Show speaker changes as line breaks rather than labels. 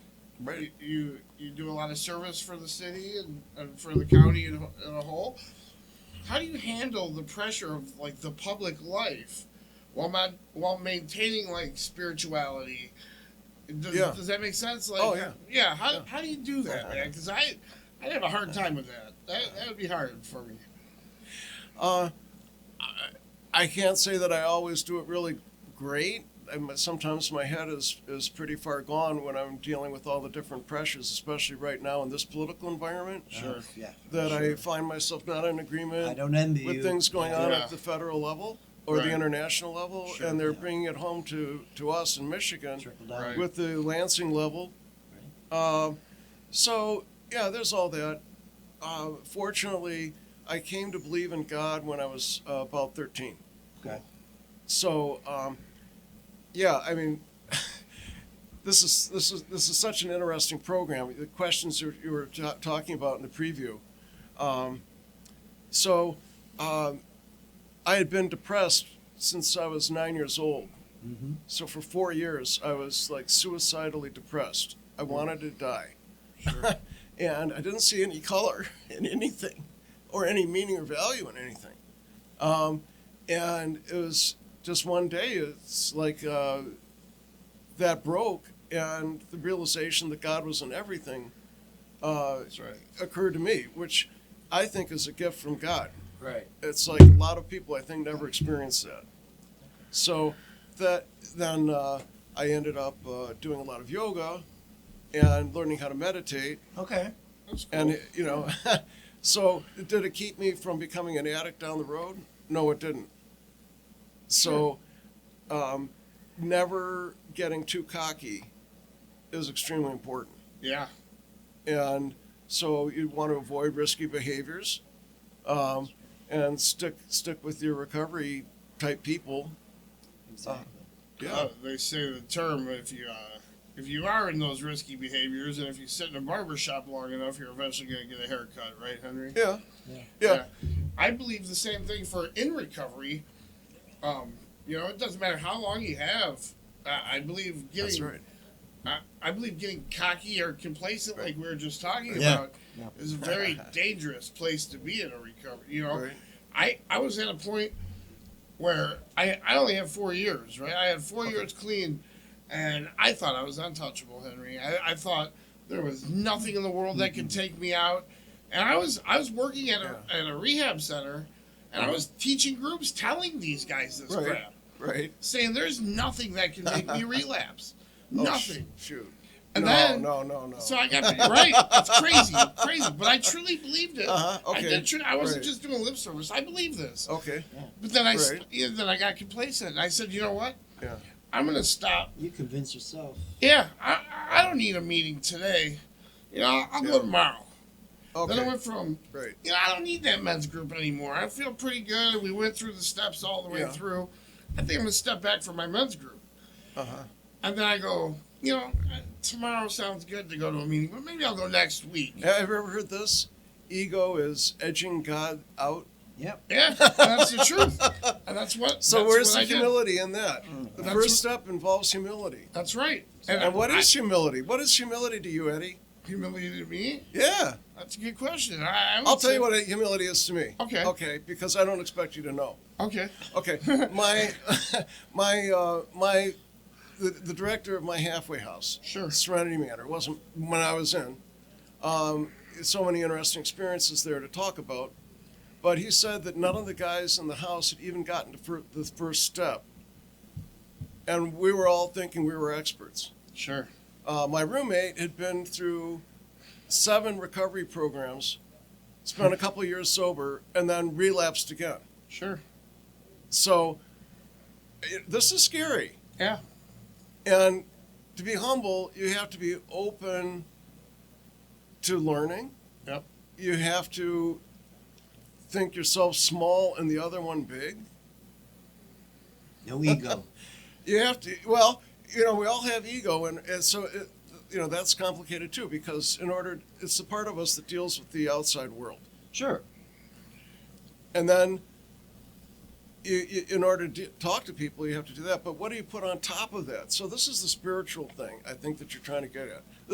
You, you you do a lot of service for the city and, and for the county in, a- in a whole. How do you handle the pressure of like the public life while not, while maintaining like spirituality? Does,
Yeah.
does that make sense? Like,
Oh, yeah.
how,
Yeah.
how do you do that, man? Because I I'd have a hard time with that. That that would be hard for me.
Uh, I, I can't say that I always do it really great. I'm, sometimes my head is, is pretty far gone when I'm dealing with all the different pressures, especially right now in this political environment.
Sure.
Uh, yeah.
That I
sure.
find myself not in agreement
I don't envy
with
you.
things going on
Yeah.
at the federal level or
Right.
the international level,
Sure,
and they're
yeah.
bringing it home to, to us in Michigan
Trickle down.
Right.
with the Lansing level. Um, so, yeah, there's all that. Uh, fortunately, I came to believe in God when I was uh, about 13.
Okay.
So, um, yeah, I mean, this is this is this is such an interesting program. The questions you, you were ta talking about in the preview. Um, so, um, I had been depressed since I was nine years old.
Mm-hmm.
So for four years, I was like suicidally depressed. I wanted to die. and I didn't see any color in anything or any meaning or value in anything. Um, and it was just one day, it's like uh, that broke, and the realization that God was in everything uh,
That's right.
occurred to me, which I think is a gift from God
Right.
it's like a lot of people I think never experienced that. So that then uh, I ended up uh, doing a lot of yoga and learning how to meditate,
Okay.
That's cool.
and you know, so did it keep me from becoming an addict down the road? No, it didn't. So, um, never getting too cocky is extremely important.
yeah.
And so you want to avoid risky behaviors um, and stick stick with your recovery type people.
Exactly.
Yeah.
Uh, they say the term if you uh, if you are in those risky behaviors and if you sit in a barber shop long enough, you're eventually going to get a haircut, right, Henry?
Yeah.
Yeah.
Yeah.
I believe the same thing for in recovery. Um, you know, it doesn't matter how long you have. I I believe
That's
getting
right.
I, I believe getting cocky or complacent, like we were just talking
Yeah.
about,
Yeah.
is a very dangerous place to be in a recovery. You know,
Right.
I, I was at a point where I, I only had four years, right? I had four years clean, and I thought I was untouchable, Henry. I, I thought there was nothing in the world that
Mm-hmm.
could take me out. And I was I was working at a, at a rehab center, and I was teaching groups, telling these guys this
Mm-hmm. Right.
crap,
Right.
saying there's nothing that can make me relapse,
Oh,
nothing.
sh- shoot.
And
no,
then-
no, no, no.
So I got right. It's crazy, crazy. But I truly believed it.
Uh-huh,
I
okay,
did. Tr- I wasn't
right.
just doing lip service. I believed this.
okay.
But then I, s-
Right.
yeah, then I got complacent. And I said, you know what?
Yeah.
I'm gonna stop.
You convince yourself.
Yeah, I, I don't need a meeting today. You know, I'll, I'll
Yeah.
go tomorrow.
Okay.
Then I went from,
right.
you know, I don't need that men's group anymore. I feel pretty good. We went through the steps all the way
Yeah.
through. I think I'm gonna step back from my men's group.
Uh huh.
And then I go, you know, tomorrow sounds good to go to a meeting, but maybe I'll go next week.
Have you ever heard this? Ego is edging God out.
Yep.
Yeah, that's the truth. And that's what.
So
that's
where's
what
the
I did.
humility in that? The
That's
first
wh-
step involves humility.
That's right.
And, what
I-
is humility? What is humility to you, Eddie?
humility to me?
Yeah.
That's a good question. I, I would
I'll tell
say-
you what humility is to me.
Okay.
Okay, because I don't expect you to know.
Okay.
Okay, my my uh, my the, the director of my halfway house,
Sure.
Serenity Manor, wasn't when I was in. Um, so many interesting experiences there to talk about, but he said that none of the guys in the house had even gotten to fir- the first step, and we were all thinking we were experts.
Sure.
Uh, my roommate had been through seven recovery programs, spent a couple years sober, and then relapsed again.
Sure.
So it, this is scary.
Yeah.
And to be humble, you have to be open to learning.
Yep.
You have to think yourself small and the other one big.
No ego.
You have to, well, you know, we all have ego, and, and so, it, you know, that's complicated too because, in order, it's the part of us that deals with the outside world.
sure.
And then, you, you, in order to d- talk to people, you have to do that. But what do you put on top of that? So this is the spiritual thing I think that you're trying to get at.